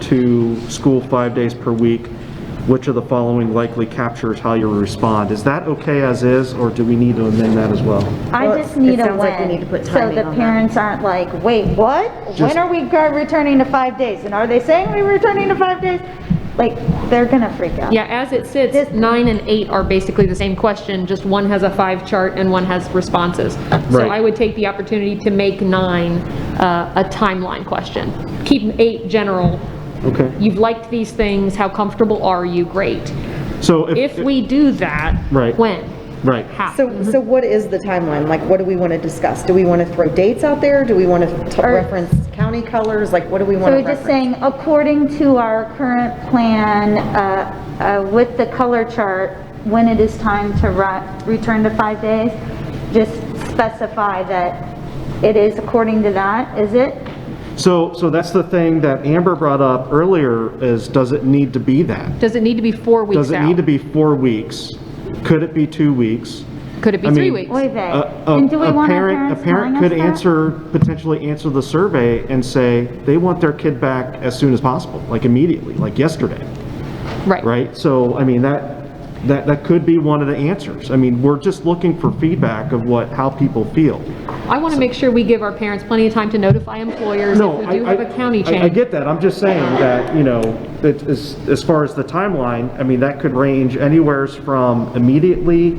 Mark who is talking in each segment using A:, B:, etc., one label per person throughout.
A: to school five days per week, which of the following likely captures how you respond? Is that okay as is, or do we need to amend that as well?
B: I just need
C: it
B: a
C: sounds like we
B: when,
C: need to put
B: so
C: timing
B: the
C: on that.
B: parents aren't like, wait, what?
A: Just-
B: When are we go- returning to five days? And are they saying we're returning to five days? Like, they're gonna freak out.
D: Yeah, as it sits, nine and eight are basically the same question, just one has a five chart and one has responses. So
A: Right.
D: I would take the opportunity to make nine uh, a timeline question. Keep eight general.
A: Okay,
D: You've liked these things, how comfortable are you? Great.
A: so if,
D: If we do that,
A: Right.
D: when?
A: right,
D: How?
C: So,
B: Mm-hmm.
C: so what is the timeline? Like, what do we want to discuss? Do we want to throw dates out there? Do we want to
B: Or-
C: reference county colors? Like, what do we want
B: So
C: to
B: we're just
C: reference?
B: saying, according to our current plan, uh, uh, with the color chart, when it is time to ri- return to five days, just specify that it is according to that, is it?
A: so, so that's the thing that Amber brought up earlier, is does it need to be that?
D: Does it need to be four weeks out?
A: Does it need to be four weeks? Could it be two weeks?
D: Could it be
A: I
D: three
A: mean-
D: weeks?
B: Oy vey.
A: A- a-
B: And do we
A: a
B: want our
A: parent-
B: parents
A: A parent
B: telling
A: could
B: us that?
A: answer, potentially answer the survey and say, they want their kid back as soon as possible, like immediately, like yesterday, right? So, I mean, that, that, that could be one of the answers. I mean, we're just looking for feedback of what, how people feel.
D: I want to make sure we give our parents plenty of time to notify employers if
A: No,
D: we
A: I,
D: do have a
A: I-
D: county
A: I- I
D: change.
A: get that, I'm just saying that, you know, that as, as far as the timeline, I mean, that could range anywheres from immediately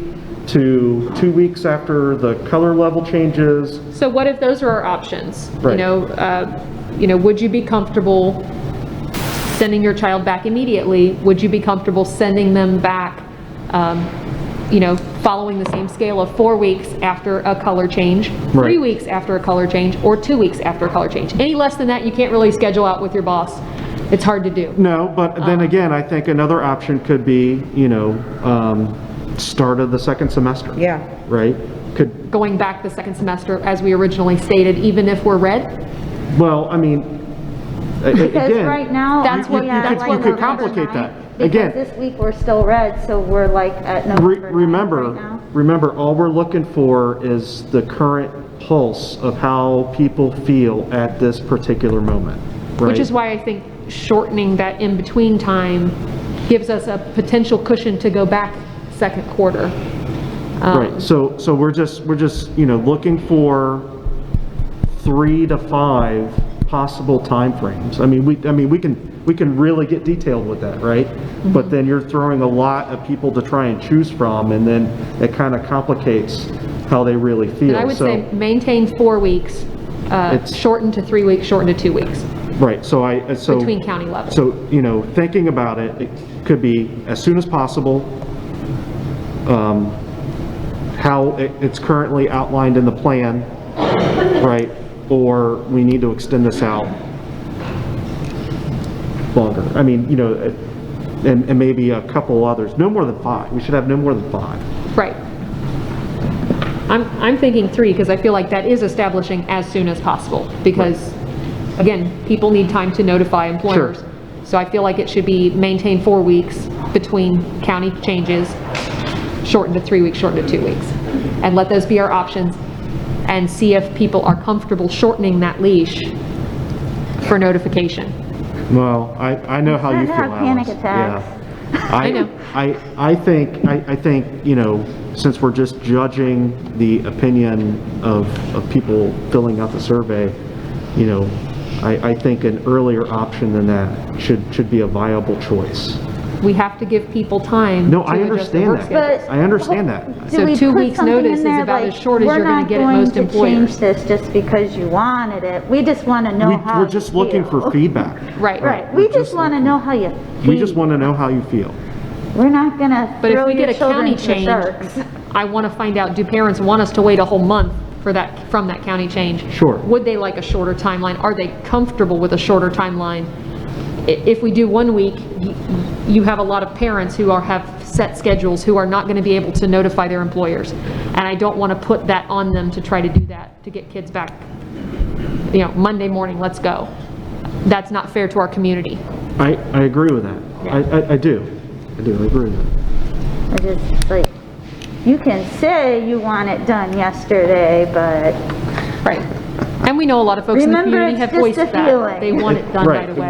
A: to two weeks after the color level changes,
D: So what if those are our options? You
A: Right.
D: know, uh, you know, would you be comfortable sending your child back immediately? Would you be comfortable sending them back, um, you know, following the same scale of four weeks after a color change? Three
A: Right.
D: weeks after a color change, or two weeks after a color change? Any less than that, you can't really schedule out with your boss. It's hard to do.
A: No, but then
D: Uh-huh.
A: again, I think another option could be, you know, um, start of the second semester.
C: Yeah.
A: Right? Could,
D: Going back the second semester as we originally stated, even if we're red,
A: well, I mean, a- a- again.
B: Because right now.
D: That's
B: I'm
D: what-
A: you-
B: looking at
D: that's
B: like
A: You could, you could
D: we're gonna
A: complicate
D: tonight,
A: that.
B: Because
A: Again,
B: this week we're still red, so we're like at
A: re-
B: November 9th right
A: remember,
B: now.
A: remember, all we're looking for is the current pulse of how people feel at this particular moment, right?
D: Which is why I think shortening that in-between time gives us a potential cushion to go back second quarter. Um,
A: Right, so, so we're just, we're just, you know, looking for three to five possible timeframes. I mean, we, I mean, we can, we can really get detailed with that, right?
D: Mm-hmm.
A: But then you're throwing a lot of people to try and choose from, and then it kind of complicates how they really feel.
D: And I would
A: So-
D: say maintain four weeks, uh,
A: It's-
D: shorten to three weeks, shorten to two weeks.
A: Right, so I, so.
D: Between county levels.
A: So, you know, thinking about it, it could be as soon as possible, um, how it- it's currently outlined in the plan, right? Or we need to extend this out longer. I mean, you know, it- and, and maybe a couple others, no more than five. We should have no more than five.
D: Right. I'm, I'm thinking three, because I feel like that is establishing as soon as possible, because, again, people need time to notify employers. So I feel like it should be maintained four weeks between county changes, shortened to three weeks, shortened to two weeks. And let those be our options, and see if people are comfortable shortening that leash for notification.
A: Well, I, I know how you
B: I've
A: feel,
B: had
A: Alice.
B: panic attacks.
A: Yeah. I,
D: know.
A: I, I think, I, I think, you know, since we're just judging the opinion of, of people filling out the survey, you know, I, I think an earlier option than that should, should be a viable choice.
D: We have to give people time.
A: No,
D: to
A: I
D: adjust
A: understand
D: their work
A: that.
D: schedule.
B: But-
A: I understand that.
B: Do
D: So
B: we
D: two
B: put
D: weeks'
B: something in
D: notice is
B: there
D: about
B: like,
D: as short as
B: we're
D: you're gonna
B: not
D: get at
B: going
D: most
B: to
D: employers?
B: Change this just because you wanted it. We just want to
A: We,
B: know how
A: we're just
B: you
A: looking
B: feel.
A: for feedback.
D: Right.
B: Right, we just want to know how you
A: We just
B: feel.
A: want to know how you feel.
B: We're not going to
D: But if
B: throw
D: we get
B: your
D: a county
B: children to the
D: change,
B: sharks.
D: I want to find out, do parents want us to wait a whole month for that, from that county change?
A: Sure.
D: Would they like a shorter timeline? Are they comfortable with a shorter timeline? I- If we do one week, y- you have a lot of parents who are, have set schedules, who are not going to be able to notify their employers. And I don't want to put that on them to try to do that, to get kids back, you know, Monday morning, let's go. That's not fair to our community.
A: I, I agree with that. I, I, I do. I do, I agree with that.
B: It is like, you can say you want it done yesterday, but
D: Right. And we know a lot of folks in the
B: Remember,
D: community
B: it's
D: have
B: just
D: voiced
B: a
D: that.
B: feeling.
D: They want it done
A: Right.
D: right away.